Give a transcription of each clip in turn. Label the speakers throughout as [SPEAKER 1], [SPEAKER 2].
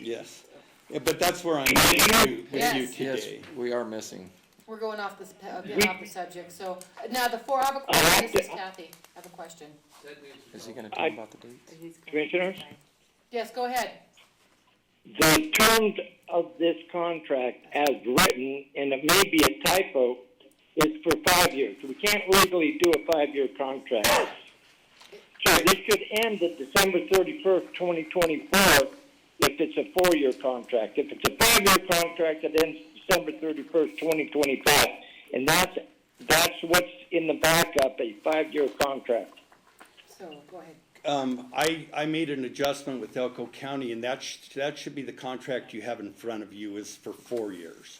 [SPEAKER 1] Yes, Yeah, but that's where I'm with you, with you
[SPEAKER 2] Yes.
[SPEAKER 3] Yes,
[SPEAKER 1] today.
[SPEAKER 3] we are missing.
[SPEAKER 2] We're going off this, pa- uh, getting off the subject, so, uh, now the four, I have a question, this is Kathy, I have a question.
[SPEAKER 3] Is he gonna talk about the dates?
[SPEAKER 4] Commissioners,
[SPEAKER 2] Yes, go ahead,
[SPEAKER 4] the terms of this contract as written, and it may be a typo, is for five years. We can't legally do a five-year contract. So this should end at December thirty-first, twenty twenty-four, if it's a four-year contract. If it's a five-year contract, it ends December thirty-first, twenty twenty-five. And that's, that's what's in the backup, a five-year contract.
[SPEAKER 2] so, go ahead.
[SPEAKER 1] Um, I, I made an adjustment with Elko County and that sh that should be the contract you have in front of you is for four years.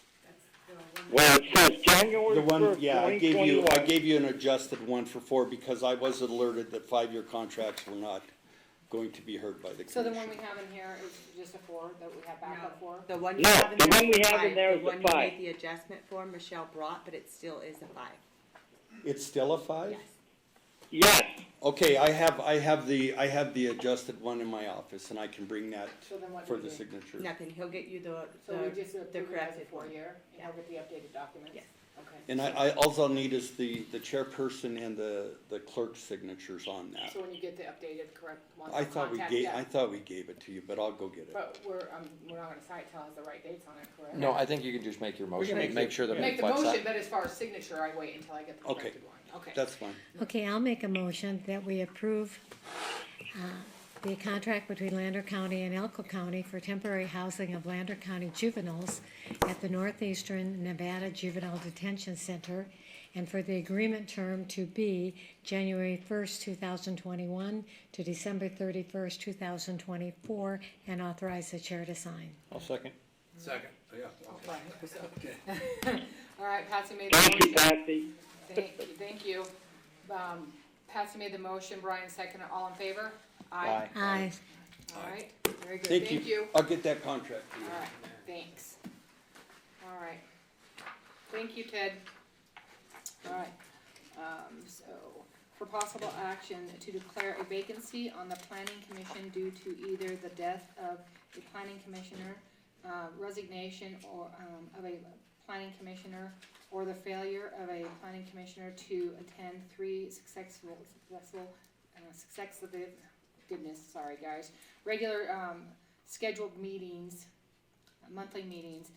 [SPEAKER 4] Well, it says January
[SPEAKER 1] The
[SPEAKER 4] first,
[SPEAKER 1] one,
[SPEAKER 4] twenty
[SPEAKER 1] yeah, I gave you,
[SPEAKER 4] twenty-one.
[SPEAKER 1] I gave you an adjusted one for four because I was alerted that five-year contracts were not going to be heard by the
[SPEAKER 2] So the
[SPEAKER 1] commission.
[SPEAKER 2] one we have in here is just a four, that we have backup for?
[SPEAKER 5] The one you
[SPEAKER 4] No,
[SPEAKER 5] have in
[SPEAKER 4] the
[SPEAKER 5] there
[SPEAKER 4] one we
[SPEAKER 5] is a
[SPEAKER 4] have in
[SPEAKER 5] five.
[SPEAKER 4] there is a
[SPEAKER 5] The one you
[SPEAKER 4] five.
[SPEAKER 5] made the adjustment for, Michelle brought, but it still is a five.
[SPEAKER 1] It's still a five?
[SPEAKER 5] Yes.
[SPEAKER 4] Yes,
[SPEAKER 1] Okay, I have, I have the, I have the adjusted one in my office and I can bring that
[SPEAKER 2] So then what
[SPEAKER 1] for
[SPEAKER 2] do we
[SPEAKER 1] the
[SPEAKER 2] do?
[SPEAKER 1] signature.
[SPEAKER 5] Nothing, he'll get you the,
[SPEAKER 2] So we just
[SPEAKER 5] the, the
[SPEAKER 2] approve it as a
[SPEAKER 5] corrected one.
[SPEAKER 2] four-year, and I'll get the updated documents?
[SPEAKER 5] Yes.
[SPEAKER 2] Okay,
[SPEAKER 1] And I, I, alls I'll need is the, the chairperson and the, the clerk's signatures on that.
[SPEAKER 2] so when you get the updated correct one,
[SPEAKER 1] I thought we
[SPEAKER 2] contact
[SPEAKER 1] gave,
[SPEAKER 2] us.
[SPEAKER 1] I thought we gave it to you, but I'll go get it.
[SPEAKER 2] But we're, um, we're not gonna cite, tell us the right dates on it, correct?
[SPEAKER 3] No, I think you can just make your motion
[SPEAKER 1] make
[SPEAKER 3] and make
[SPEAKER 1] it-
[SPEAKER 3] sure that it
[SPEAKER 2] Make the
[SPEAKER 3] reflects
[SPEAKER 2] motion,
[SPEAKER 3] that.
[SPEAKER 2] but as far as signature, I wait until I get the
[SPEAKER 1] Okay.
[SPEAKER 2] corrected one, okay?
[SPEAKER 1] That's fine.
[SPEAKER 6] Okay, I'll make a motion that we approve uh, the contract between Lander County and Elko County for temporary housing of Lander County juveniles at the Northeastern Nevada Juvenile Detention Center and for the agreement term to be January first, two thousand twenty-one to December thirty-first, two thousand twenty-four, and authorize the chair to sign.
[SPEAKER 3] I'll second.
[SPEAKER 7] Second, yeah,
[SPEAKER 2] Fine, so- All right, Patsy made the
[SPEAKER 4] thank you,
[SPEAKER 2] motion,
[SPEAKER 4] Patsy.
[SPEAKER 2] thank, thank you. Um, Patsy made the motion, Brian seconded, all in favor?
[SPEAKER 3] Aye.
[SPEAKER 6] Aye.
[SPEAKER 2] All right, very good,
[SPEAKER 1] Thank you. I'll get that contract to
[SPEAKER 2] All
[SPEAKER 1] you.
[SPEAKER 2] right, thanks. All right. Thank you, Ted. All right, um, so, for possible action to declare a vacancy on the planning commission due to either the death of a planning commissioner, uh, resignation or, um, of a planning commissioner, or the failure of a planning commissioner to attend three successful, successful, uh, successive, goodness, sorry, guys, regular, um, scheduled meetings, monthly meetings,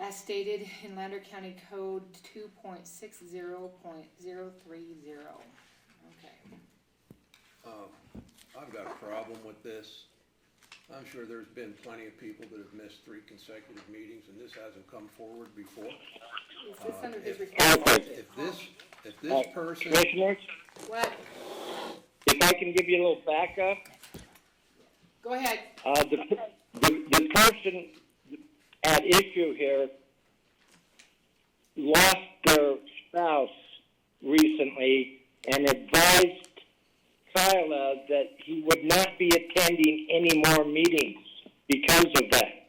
[SPEAKER 2] as stated in Lander County Code two point six zero point zero three zero. Okay,
[SPEAKER 7] I've got a problem with this. I'm sure there's been plenty of people that have missed three consecutive meetings, and this hasn't come forward before.
[SPEAKER 2] is this
[SPEAKER 7] Uh,
[SPEAKER 2] under his responsibility?
[SPEAKER 7] If this, if this person,
[SPEAKER 4] Commissioners,
[SPEAKER 2] What,
[SPEAKER 4] if I can give you a little backup,
[SPEAKER 2] go ahead,
[SPEAKER 4] uh, the, the, the person at issue here lost their spouse recently and advised Kyla that he would not be attending any more meetings because of that.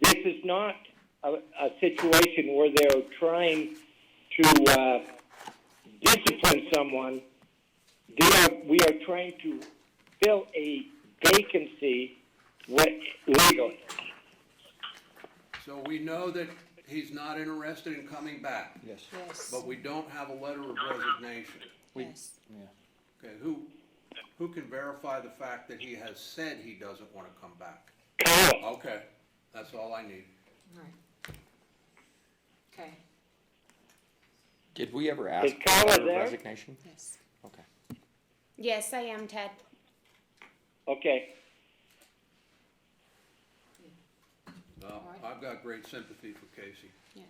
[SPEAKER 4] This is not a, a situation where they're trying to, uh, discipline someone. They are, we are trying to fill a vacancy wi- legally.
[SPEAKER 7] so we know that he's not interested in coming back,
[SPEAKER 3] Yes.
[SPEAKER 2] yes,
[SPEAKER 7] but we don't have a letter of resignation.
[SPEAKER 2] yes,
[SPEAKER 7] Okay, who, who can verify the fact that he has said he doesn't wanna come back?
[SPEAKER 4] Kyle,
[SPEAKER 7] Okay, that's all I need.
[SPEAKER 2] alright. Okay,
[SPEAKER 3] Did we ever ask
[SPEAKER 4] Kyla
[SPEAKER 3] for
[SPEAKER 4] there?
[SPEAKER 3] resignation?
[SPEAKER 2] yes,
[SPEAKER 3] Okay.
[SPEAKER 8] Yes, I am, Ted.
[SPEAKER 4] okay,
[SPEAKER 7] Uh, I've got great sympathy for Casey.
[SPEAKER 2] yeah, okay.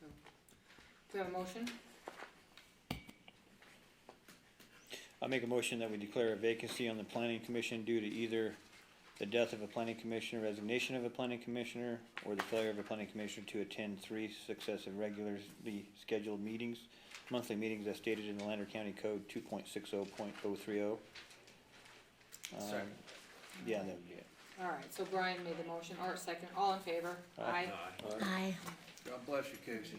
[SPEAKER 2] So, Do we have a motion?
[SPEAKER 9] I make a motion that we declare a vacancy on the planning commission due to either the death of a planning commissioner, resignation of a planning commissioner, or the failure of a planning commissioner to attend three successive regularly scheduled meetings, monthly meetings as stated in the Lander County Code two point six oh point oh three oh. Um,
[SPEAKER 7] Second.
[SPEAKER 9] Yeah, that would be it.
[SPEAKER 2] Alright, so Brian made the motion, Art second, all in favor? Aye.
[SPEAKER 7] Aye.
[SPEAKER 6] Aye.
[SPEAKER 7] God bless you, Casey.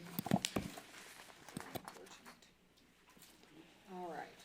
[SPEAKER 2] All right.